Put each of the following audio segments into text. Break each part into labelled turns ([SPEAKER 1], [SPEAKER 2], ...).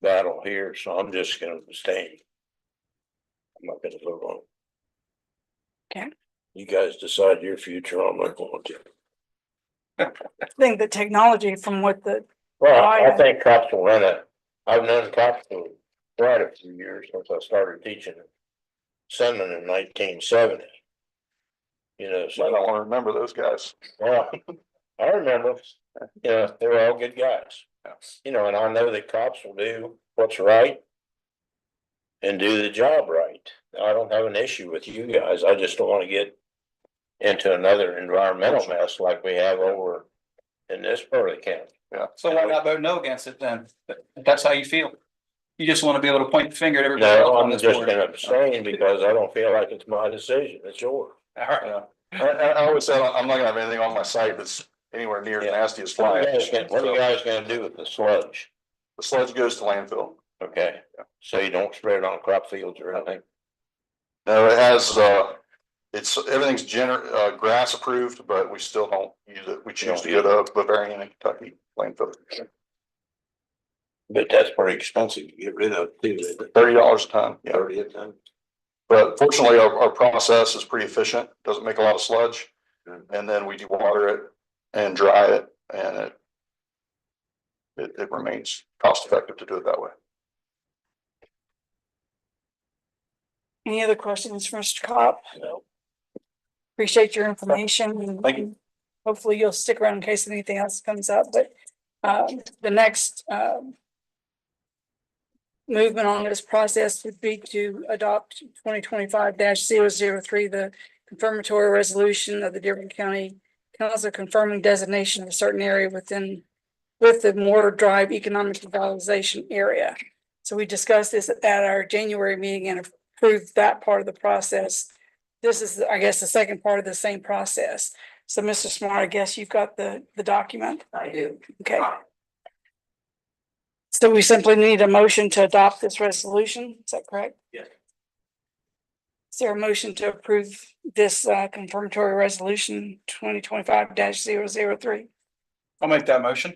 [SPEAKER 1] battle here, so I'm just gonna abstain. I'm not gonna vote on. it.
[SPEAKER 2] Okay.
[SPEAKER 1] You guys decide your future, I'm not going to.
[SPEAKER 2] think the technology from what the,
[SPEAKER 1] Well,
[SPEAKER 2] Oh,
[SPEAKER 1] I
[SPEAKER 2] yeah.
[SPEAKER 1] think cops will run it. I've known cops for quite a few years since I started teaching. Sending in nineteen seventy. You know,
[SPEAKER 3] I
[SPEAKER 1] so,
[SPEAKER 3] don't wanna remember those guys.
[SPEAKER 1] well, I remember, you know, they were all good guys. You know, and I know that cops will do what's right. And do the job right. I don't have an issue with you guys. I just don't wanna get. Into another environmental mess like we have over in this part of the county.
[SPEAKER 3] Yeah.
[SPEAKER 4] So why not vote no against it then? If that's how you feel. You just want to be able to point the finger at everybody else
[SPEAKER 1] No,
[SPEAKER 4] on
[SPEAKER 1] I'm
[SPEAKER 4] this
[SPEAKER 1] just
[SPEAKER 4] board.
[SPEAKER 1] gonna abstain because I don't feel like it's my decision, it's yours.
[SPEAKER 4] All right.
[SPEAKER 3] Yeah. I, I, I always said, I'm not gonna have anything on my site that's anywhere near as nasty as
[SPEAKER 1] What
[SPEAKER 3] fly
[SPEAKER 1] are you guys
[SPEAKER 3] ash.
[SPEAKER 1] gonna, what are you
[SPEAKER 3] The
[SPEAKER 1] guys gonna do with the sludge?
[SPEAKER 3] sludge goes to landfill.
[SPEAKER 1] Okay, so you don't spread it on crop fields or anything?
[SPEAKER 3] No, it has, uh, it's, everything's gener, uh, grass approved, but we still don't use it. We choose to go to Bavarian and Kentucky landfill.
[SPEAKER 1] But that's pretty expensive to get rid of, too, isn't it?
[SPEAKER 3] Thirty dollars a ton, yeah.
[SPEAKER 1] Thirty a ton.
[SPEAKER 3] But fortunately, our, our process is pretty efficient, doesn't make a lot of sludge. And then we dewater it and dry it and it it, it remains cost effective to do it that way.
[SPEAKER 2] any other questions for Mr. Cop?
[SPEAKER 1] No.
[SPEAKER 2] Appreciate your information.
[SPEAKER 3] Thank you.
[SPEAKER 2] Hopefully you'll stick around in case anything else comes up, but, uh, the next, um, movement on this process would be to adopt twenty twenty-five 3 the confirmatory resolution of the Dearborn County Council confirming designation of a certain area within, with the Moore Drive Economic Revitalization Area. So we discussed this at our January meeting and approved that part of the process. This is, I guess, the second part of the same process. So Mr. Smart, I guess you've got the, the document.
[SPEAKER 5] I do.
[SPEAKER 2] Okay. So we simply need a motion to adopt this resolution. Is that correct?
[SPEAKER 5] Yes.
[SPEAKER 2] Is there a motion to approve this uh, confirmatory resolution twenty twenty-five 3
[SPEAKER 4] I'll make that motion.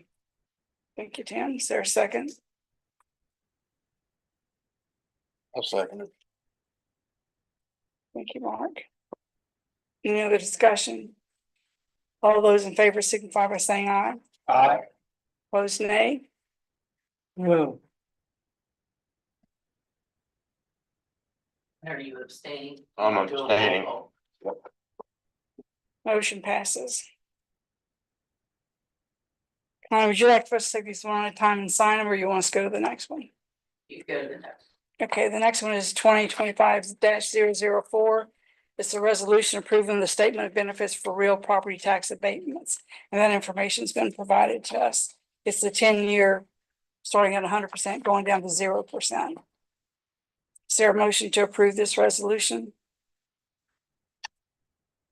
[SPEAKER 2] Thank you, Tim. Is there a second?
[SPEAKER 1] I'll second it.
[SPEAKER 2] Thank you, Mark. Any other discussion? All those in favor signify by saying aye.
[SPEAKER 4] Aye.
[SPEAKER 2] Opposed, nay? No.
[SPEAKER 5] Are you abstaining?
[SPEAKER 1] I'm
[SPEAKER 5] Do a roll
[SPEAKER 1] abstaining.
[SPEAKER 5] call.
[SPEAKER 2] Motion passes. Connie, would you like for us to take these one at a time and sign them, or you want us to go to the next one?
[SPEAKER 5] You go to the next.
[SPEAKER 2] Okay, the next one is twenty twenty-five 4 It's a resolution approving the statement of benefits for real property tax abatements. And that information's been provided to us. It's the ten-year, starting at hundred percent, going down to zero percent. Is there a motion to approve this resolution?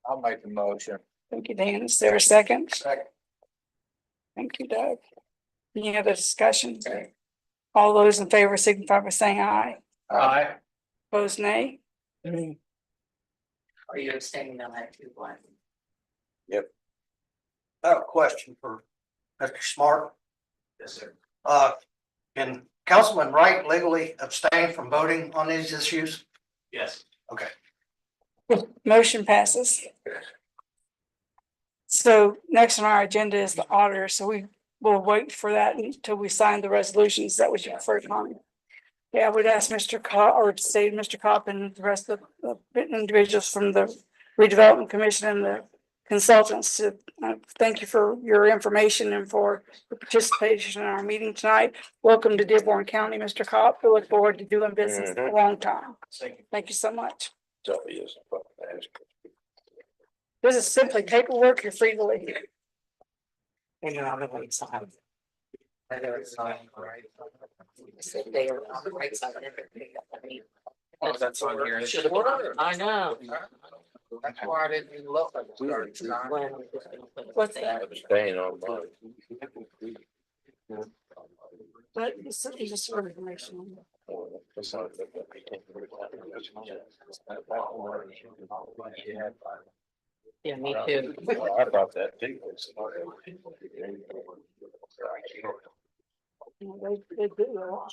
[SPEAKER 4] I'll make the motion.
[SPEAKER 2] Thank you, Dan. Is there a second?
[SPEAKER 4] Second.
[SPEAKER 2] Thank you, Doug. Any other discussion? All those in favor signify by saying aye.
[SPEAKER 4] Aye.
[SPEAKER 2] Opposed, nay?
[SPEAKER 5] Are you abstaining on that two one?
[SPEAKER 6] I have a question for Mr. Smart.
[SPEAKER 5] Yes, sir.
[SPEAKER 6] Uh, can Councilman Wright legally abstain from voting on these issues?
[SPEAKER 5] Yes.
[SPEAKER 2] Motion passes. So next on our agenda is the auditor, so we will wait for that until we sign the resolutions that was your first comment. Yeah, I would ask Mr. Cop, or say Mr. Cop and the rest of the individuals from the redevelopment commission and the consultants to uh, thank you for your information and for your participation in our meeting tonight. Welcome to Dearborn County, Mr. Cop. We look forward to doing business for a long time.
[SPEAKER 5] Mm-hmm. Thank you.
[SPEAKER 2] Thank you so much.
[SPEAKER 1] So, yes, I'm gonna ask.
[SPEAKER 2] This is simply paperwork. You're free to leave.
[SPEAKER 5] And you're on the right side. Whether it's not right. Said They are on the right side. of everything that I mean.
[SPEAKER 4] Oh, that's on here.
[SPEAKER 5] Should have been- I know.
[SPEAKER 4] That's
[SPEAKER 5] why I didn't look. What's
[SPEAKER 1] I'm
[SPEAKER 5] that?
[SPEAKER 1] Abstain on mine.
[SPEAKER 2] But it's certainly just sort of information.
[SPEAKER 5] Yeah, me too.
[SPEAKER 1] I thought that too.
[SPEAKER 2] You know, They, they do a lot.